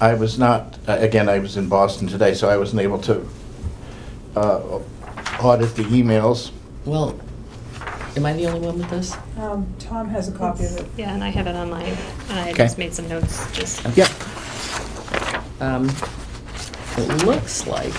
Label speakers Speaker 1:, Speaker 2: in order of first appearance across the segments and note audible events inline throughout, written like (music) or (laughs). Speaker 1: I was not, uh, again, I was in Boston today, so I wasn't able to uh, audit the emails.
Speaker 2: Well, am I the only one with this?
Speaker 3: Um, Tom has a copy of it.
Speaker 4: Yeah, and I have it online, and I
Speaker 2: Okay.
Speaker 4: just made some notes, just,
Speaker 1: Yep.
Speaker 2: Um, It looks like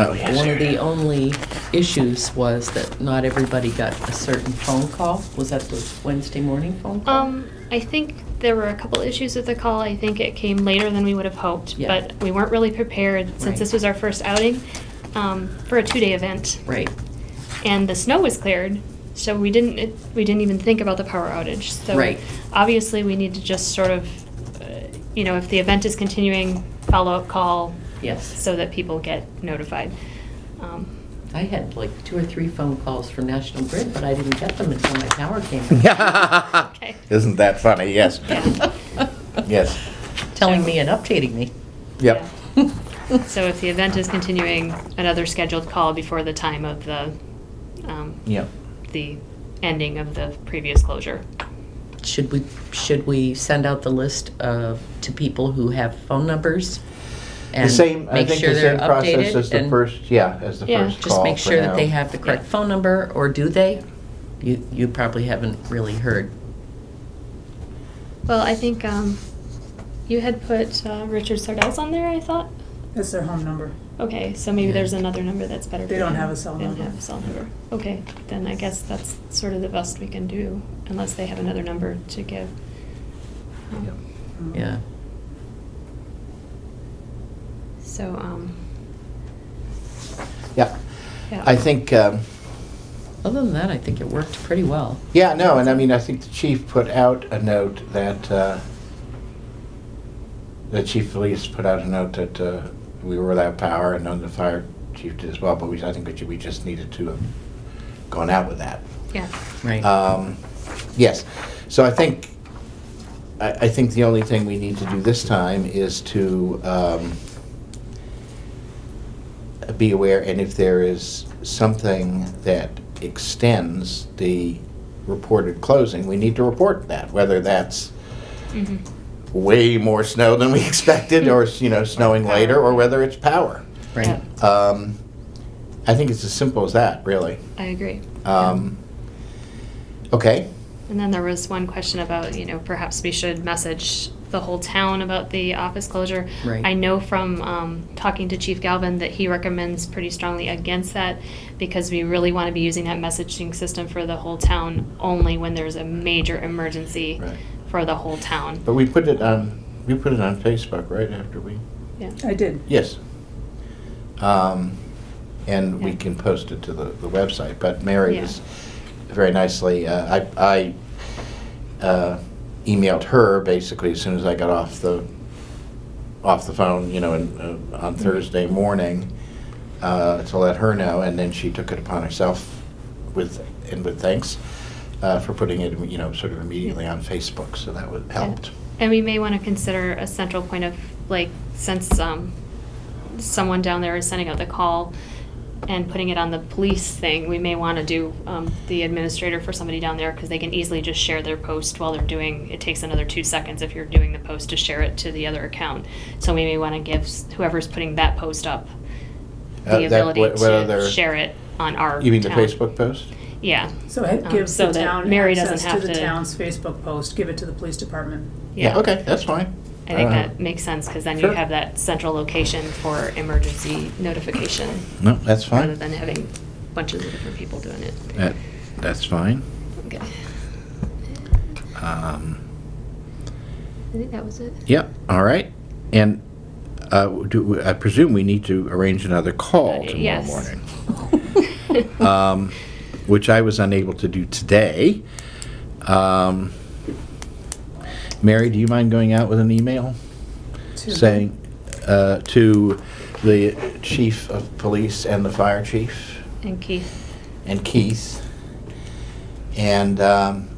Speaker 1: Oh, yes.
Speaker 2: One
Speaker 1: here
Speaker 2: of
Speaker 1: it is. (laughs)
Speaker 2: the only issues was that not everybody got a certain phone call. Was that the Wednesday morning phone call?
Speaker 4: um, I think there were a couple issues with the call, I think it came later than we would have hoped,
Speaker 2: Yeah.
Speaker 4: but we weren't really prepared,
Speaker 2: Right.
Speaker 4: since this was our first outing, um, for a two-day event.
Speaker 2: Right.
Speaker 4: and the snow was cleared, so we didn't it, we didn't even think about the power outage. So
Speaker 2: Right.
Speaker 4: obviously, we need to just sort of, uh, you know, if the event is continuing, follow up call
Speaker 2: Yes.
Speaker 4: so that people get notified. Um,
Speaker 2: I had like two or three phone calls from National Grid, but I didn't get them until my
Speaker 1: (laughs)
Speaker 2: power came
Speaker 4: okay.
Speaker 1: Isn't that funny?
Speaker 4: (laughs)
Speaker 1: Yes,
Speaker 4: Yeah.
Speaker 2: out.
Speaker 1: yes.
Speaker 2: Telling me and updating me.
Speaker 1: Yep.
Speaker 4: Yeah. So if the event is continuing, another scheduled call before the time of the um,
Speaker 1: Yep.
Speaker 4: the ending of the previous closure.
Speaker 2: Should we, should we send out the list of, to people who have phone numbers?
Speaker 1: The
Speaker 2: and
Speaker 1: same, I
Speaker 2: make
Speaker 1: think
Speaker 2: sure
Speaker 1: the
Speaker 2: they're
Speaker 1: same process
Speaker 2: updated
Speaker 1: as the
Speaker 2: and
Speaker 1: first, yeah, as the
Speaker 4: Yeah,
Speaker 1: first call.
Speaker 2: Just make
Speaker 1: for
Speaker 2: sure that
Speaker 1: now.
Speaker 2: they have the correct
Speaker 4: Yeah.
Speaker 2: phone number, or do they? You, you probably haven't really heard.
Speaker 4: Well, I think um, you had put uh, Richard Sardell's on there. I thought.
Speaker 3: That's their home number.
Speaker 4: Okay, so maybe
Speaker 2: Yeah.
Speaker 4: there's another number that's better.
Speaker 3: They
Speaker 4: for
Speaker 3: don't
Speaker 4: them.
Speaker 3: have a cell
Speaker 4: They
Speaker 3: number.
Speaker 4: don't have a cell number. Okay, then I guess that's sort of the best we can do, unless they have another number to give. Um,
Speaker 1: Yep.
Speaker 3: Um,
Speaker 2: Yeah.
Speaker 4: So, um,
Speaker 1: Yeah.
Speaker 4: yeah.
Speaker 1: I think, um,
Speaker 2: Other than that, I think it worked pretty well.
Speaker 1: yeah, no, and I mean, I think the chief put out a note that, uh, the chief of police put out a note that uh, we were without power, and then the fire chief did as well, but we, I think that we just needed to have gone out with that.
Speaker 4: Yeah,
Speaker 2: Right.
Speaker 1: Um, Yes, so I think, I, I think the only thing we need to do this time is to um, be aware, and if there is something that extends the reported closing, we need to report that, whether that's
Speaker 4: mhm,
Speaker 1: way more snow than we (laughs) expected, or, you know, snowing later, or whether it's power.
Speaker 2: Right.
Speaker 1: Um, I think it's as simple as that, really.
Speaker 4: I agree.
Speaker 2: Uh,
Speaker 1: Um, Okay,
Speaker 4: And then there was one question about, you know, perhaps we should message the whole town about the office closure.
Speaker 2: Right.
Speaker 4: I know from um, talking to Chief Galvin that he recommends pretty strongly against that because we really want to be using that messaging system for the whole town only when there's a major emergency
Speaker 1: Right.
Speaker 4: for the whole town.
Speaker 1: but we put it on, we put it on Facebook right after we,
Speaker 4: Yeah.
Speaker 3: I did.
Speaker 1: yes. Um, And we
Speaker 4: Yeah.
Speaker 1: can post it to the, the website, but Mary
Speaker 4: Yeah.
Speaker 1: was very nicely, uh, I, I uh, emailed her basically as soon as I got off the, off the phone, you know, and, uh, on
Speaker 4: Mm-hmm.
Speaker 1: Thursday morning uh, to let her know, and then she took it upon herself with, and with thanks uh, for putting it, you know, sort of immediately on Facebook, so that would, helped.
Speaker 4: And we may want to consider a central point of, like, since um, someone down there is sending out the call and putting it on the police thing, we may want to do um, the administrator for somebody down there because they can easily just share their post while they're doing, it takes another two seconds if you're doing the post to share it to the other account. So we may want to give s- whoever's putting that post up
Speaker 1: Uh,
Speaker 4: the
Speaker 1: that-
Speaker 4: ability
Speaker 1: what- what
Speaker 4: to
Speaker 1: other-
Speaker 4: share it on our
Speaker 1: You mean the
Speaker 4: town.
Speaker 1: Facebook post?
Speaker 4: Yeah,
Speaker 3: So it
Speaker 4: Um,
Speaker 3: gives
Speaker 4: so
Speaker 3: the
Speaker 4: that
Speaker 3: town
Speaker 4: Mary doesn't
Speaker 3: access to
Speaker 4: have
Speaker 3: the
Speaker 4: to-
Speaker 3: town's Facebook post, give it to the police department.
Speaker 4: yeah.
Speaker 1: Okay, that's fine.
Speaker 4: I think
Speaker 1: Uh,
Speaker 4: that makes sense, because then you
Speaker 1: Sure.
Speaker 4: have that central location for emergency notification,
Speaker 1: No, that's
Speaker 4: rather
Speaker 1: fine.
Speaker 4: than having bunches of different people doing it.
Speaker 1: That, that's fine.
Speaker 4: Okay, I
Speaker 1: Um,
Speaker 4: think that was it.
Speaker 1: yeah, all right. And, uh, do, I presume we need to arrange another call
Speaker 4: Uh,
Speaker 1: Oh, tomorrow
Speaker 4: yes.
Speaker 1: morning.
Speaker 4: (laughs)
Speaker 1: Um, (laughs) which I was unable to do today. Um, Mary, do you mind going out with an email?
Speaker 3: to-
Speaker 1: saying uh, to the chief of police and the fire chief
Speaker 4: And Keith,
Speaker 1: and Keith, and um,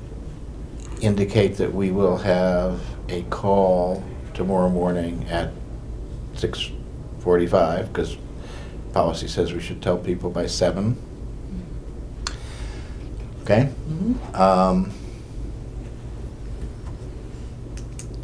Speaker 1: indicate that we will have a call tomorrow morning at 6:45, because policy says we should tell people by seven. Okay?
Speaker 2: Mhm.
Speaker 1: Um,